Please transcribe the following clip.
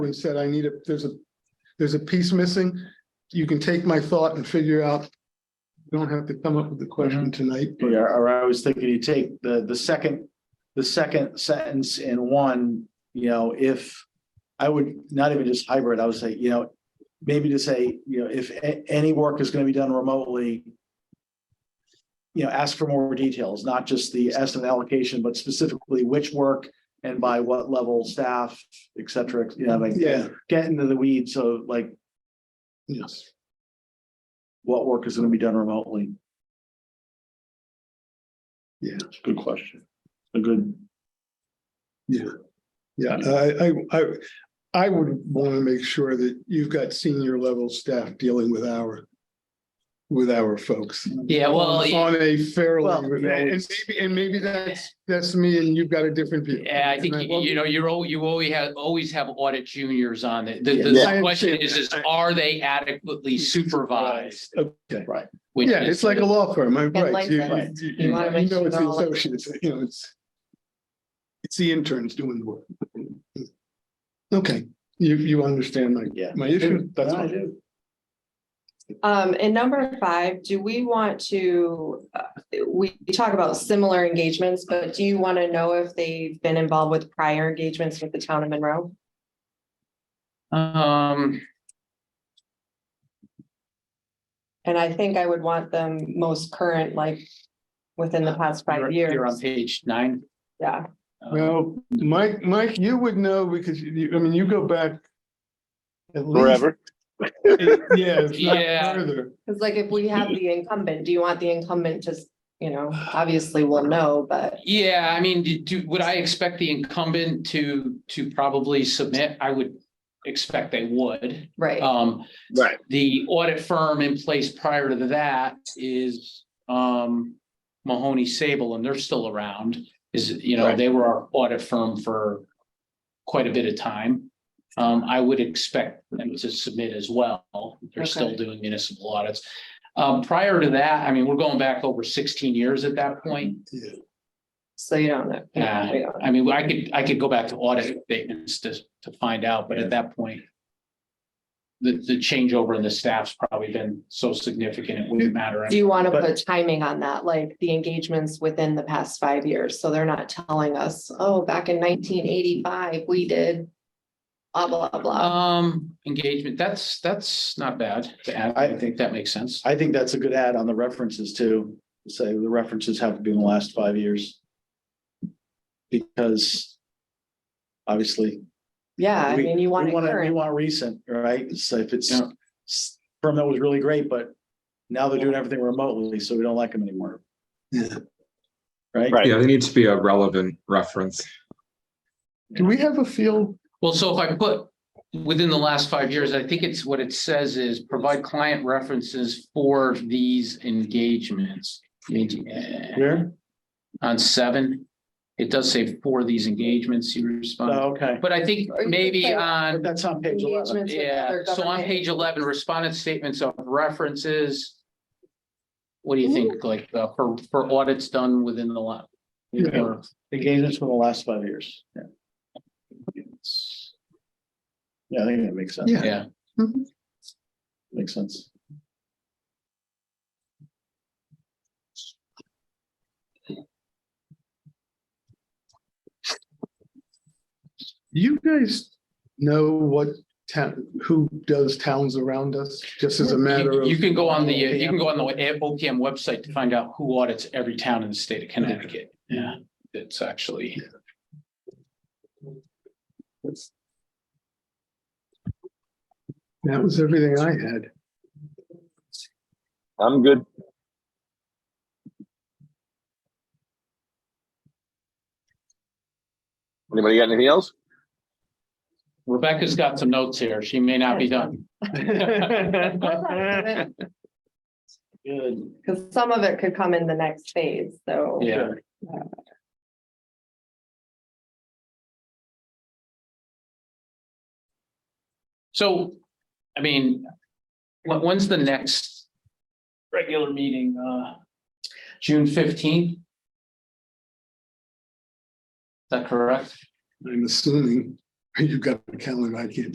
and said, I need a, there's a, there's a piece missing. You can take my thought and figure out. You don't have to come up with the question tonight, but Yeah, or I was thinking you take the, the second, the second sentence in one, you know, if. I would not even just hybrid, I would say, you know, maybe to say, you know, if a- any work is gonna be done remotely. You know, ask for more details, not just the estimate allocation, but specifically which work and by what level staff, et cetera, you know, like. Yeah. Get into the weeds of like yes, what work is gonna be done remotely. Yeah. It's a good question. A good. yeah, I, I, I, I would want to make sure that you've got senior level staff dealing with our. With our folks. Yeah, well, yeah, On a fairly, Well, and you know, and maybe, and maybe that's, that's me and you've got a different view. I think, And you you know, you're, al- you always have, always have audit juniors on it. The, the- Yeah. I the question understand is, is that. are they adequately supervised? Okay, Which yeah, is- it's like a law firm, I'm right. You- licensed. you- you- You wanna you make know sure it's the all- associates, you know, it's. It's the interns doing the work. Okay, you, you understand my, Yeah. my issue, that's all. Um, and number five, do we want to, uh, we talk about similar engagements, but do you want to know if they've been involved with prior engagements with the town of Monroe? Um, And I think I would want them most current, like within the past Uh, you're- five years. You're on page nine. Yeah, Um, Well, Mike, Mike, you would know because you, I mean, you go back. at least- Forever. Yeah. if not Yeah. Further, because like if we have the incumbent, do you want the incumbent to, you know, obviously we'll know, but Yeah, I mean, do- do, would I expect the incumbent to, to probably submit? I would expect they would. right. Um, Right. the audit firm in place prior to that is, um, Mahoney Sable, and they're still around. Is, you know, Right. they were our audit firm for quite a bit of time. Um, I would expect them to submit as well. They're Okay. still doing municipal audits. Um, prior to that, I mean, we're going back over sixteen years at that point. yeah, So you don't know. Yeah. We don't know. I mean, I could, I could go back to audit statements to, to find out, but at that point. The, the changeover in the staff's probably been so significant, it wouldn't matter. Do you want to But- put timing on that, like the engagements within the past five years? So they're not telling us, oh, back in nineteen eighty-five, we did blah, blah, blah. Um, engagement, that's, that's not bad to add. I think that makes sense. I think that's a good add on the references too. Say the references have to be in the last five years. Because obviously. Yeah, I we- mean, you want we We it current. want recent, right? So if it's Yeah. s- firm that was really great, but now they're doing everything remotely, so we don't like them anymore. yeah. Right? Right. Yeah, there needs to be a relevant reference. Do we have a field? Well, so if I put within the last five years, I think it's what it says is provide client references for these engagements. Eh, Here? On seven, it does say for these engagements, you respond. Oh, okay. But I think Or you could maybe say- But on, That's on page eleven. Engagements with yeah, other so on government- page eleven, respondent statements of references. What do you think, like, uh, for, for audits done within the lot? Yeah. or- Engagements from the last five years. Yeah. Yeah, I think that makes sense. Yeah. Yeah, Makes sense. You guys know what town, who does towns around us, just as a matter you of. you can go on the, uh, you can go on the OPM website to find out who audits every town in the state of Connecticut. Yeah, it's actually. That was everything I had. I'm good. Anybody got anything else? Rebecca's got some notes here. She may not be done. Good. Because some of it could come in the next phase, so. Yeah. So, I mean, when, when's the next regular meeting? Uh, June fifteenth? Is that correct? I'm assuming you've got a calendar I can't